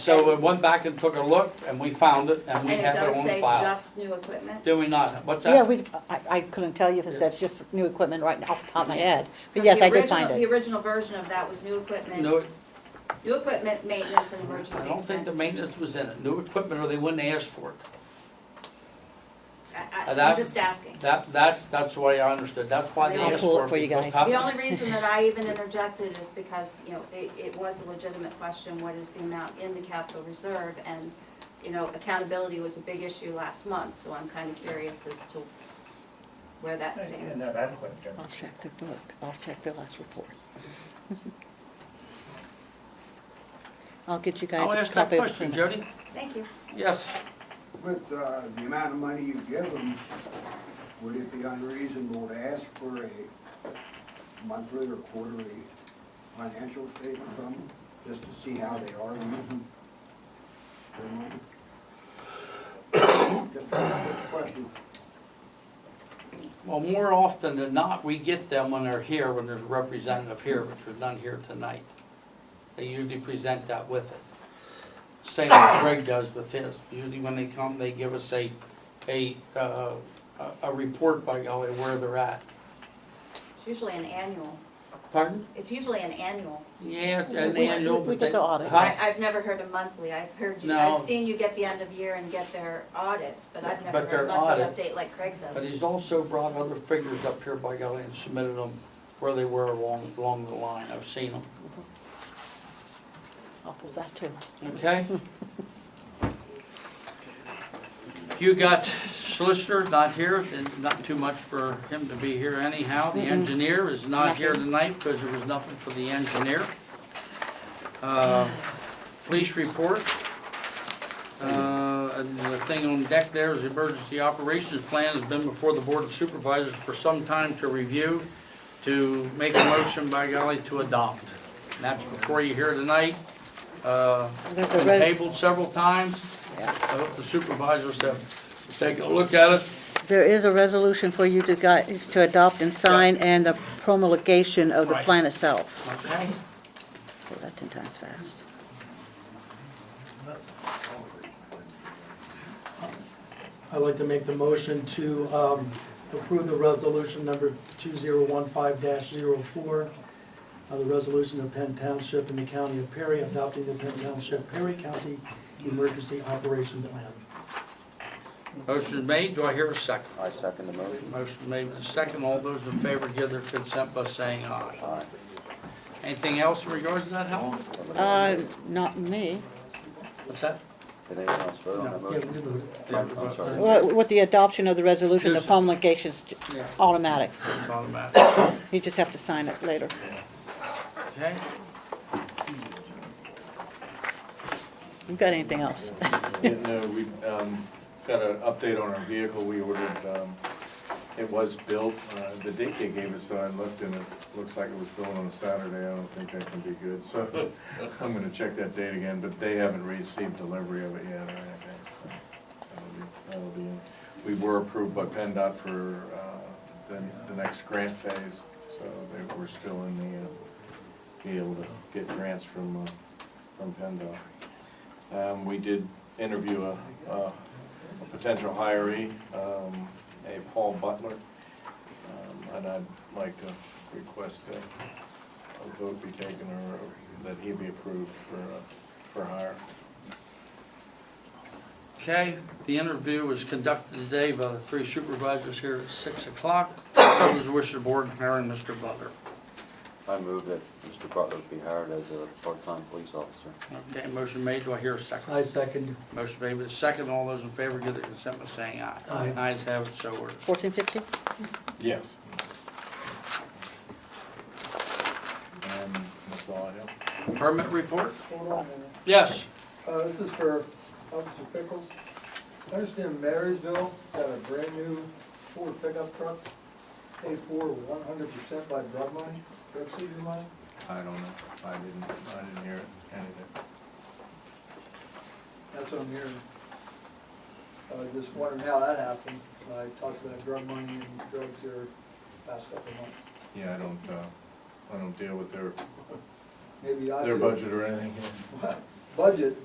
So we went back and took a look, and we found it, and we And it have it does on say file. just new equipment? Do we not? What's Yeah, that? we, I, I couldn't tell you if that's just new equipment right off the top of my head, but 'Cause yes, the I did original- find The it. original version of that was new equipment, No, new equipment, maintenance, and emergency I don't think the expense. maintenance was in it. New equipment, or they wouldn't ask for it. I- Uh, I- that- I'm just asking. That, that, that's the way I understood. That's why they I'll asked pull for it it. for you because guys. top- The only reason that I even interjected is because, you know, it, it was a legitimate question, what is the amount in the capital reserve? And, you know, accountability was a big issue last month, so I'm kind of curious as to where that And stands. that adequate, Jim. I'll check the book, I'll check the last report. I'll get you I'll guys ask a that copy of the question, printout. Jody. Thank you. Yes. With uh, the amount of money you give them, would it be unreasonable to ask for a monthly or quarterly financial statement from them, just to see how they are using their Mm-hmm. money? Just a question. Well, more often than not, we get them when they're here, when there's a representative here, which was none here tonight. They usually present that with it. Same as Greg does with his. Usually when they come, they give us a, a, uh, a- a report by golly where they're at. It's usually an annual, Pardon? it's usually an annual. Yeah, We- and we- annual, we but get they- the audit. Huh? I, I've never heard a monthly, I've heard you, I've No. seen you get the end of year and get their audits, but I've never But heard their a monthly audit- update like Craig But does. he's also brought other figures up here by golly and submitted them where they were along, along the line. I've seen them. I'll pull that too. Okay? You got solicitor not here, and not too much for him to be here anyhow. The engineer is not here tonight because there was nothing for the engineer. Uh, Police report. Uh, And the thing on deck there is emergency operations plan has been before the board of supervisors for some time to review, to make a motion by golly to adopt. And that's before you here tonight. Uh, The- the Been res- tabled several times. Yeah. I hope the supervisors have taken a look at it. There is a resolution for you to guys to adopt and sign and the promulgation of the Right. plan itself. Okay. Pull that ten times fast. I'd like to make the motion to um, approve the resolution number 2015-04, uh, the resolution of Penn Township and the County of Perry adopting the Penn Township Perry County Emergency Operation Plan. Motion made, do I hear a second? I second the motion. Motion made and second, all those in favor give their consent by saying aye. Aye. Anything else in regards to that, Helen? Uh, not me. What's that? Did anyone else vote on No, that yeah, we motion? moved it. I'm I'm sorry. Well, With the adoption of the resolution, the Yes. promulgation's Yeah. automatic. It's automatic. You just have to sign it later. Okay, You got anything else? Yeah, no, we, um, got an update on our vehicle, we ordered, um, it was built, uh, the date they gave us, though, I looked and it looks like it was built on a Saturday, I don't think that can be good, so I'm gonna check that date again, but they haven't received delivery of it yet or anything, so that'll be, that'll be in. We were approved by PennDOT for, uh, the, the next grant phase, so they, we're still in the, uh, be able to get grants from, uh, from PennDOT. Um, we did interview a, a a potential hiree, um, a Paul Butler. Um, And I'd like to request a, a vote be taken or that he be approved for, uh, for hire. okay, the interview was conducted today by the three supervisors here at six o'clock. What is the wish of the board in hiring Mr. Butler? I move that Mr. Butler be hired as a part-time police officer. Okay, motion made, do I hear a second? I second. Motion made with a second, all those in favor give their consent by saying aye. Aye. Ayes have it, so ordered. Fourteen fifty? Yes. And that's all I have. Permit report? Hold on a minute. Yes. Uh, this is for Officer Pickles. I understand Marysville got a brand-new Ford pickup truck, paid for one hundred percent by drug money, drug seizure money. I don't know, I didn't, I didn't hear anything. That's what I'm hearing. I was just wondering how that happened. I talked about drug money and drugs here past couple months. Yeah, I don't, uh, I don't deal with their, Maybe I their do. budget or anything. Budget,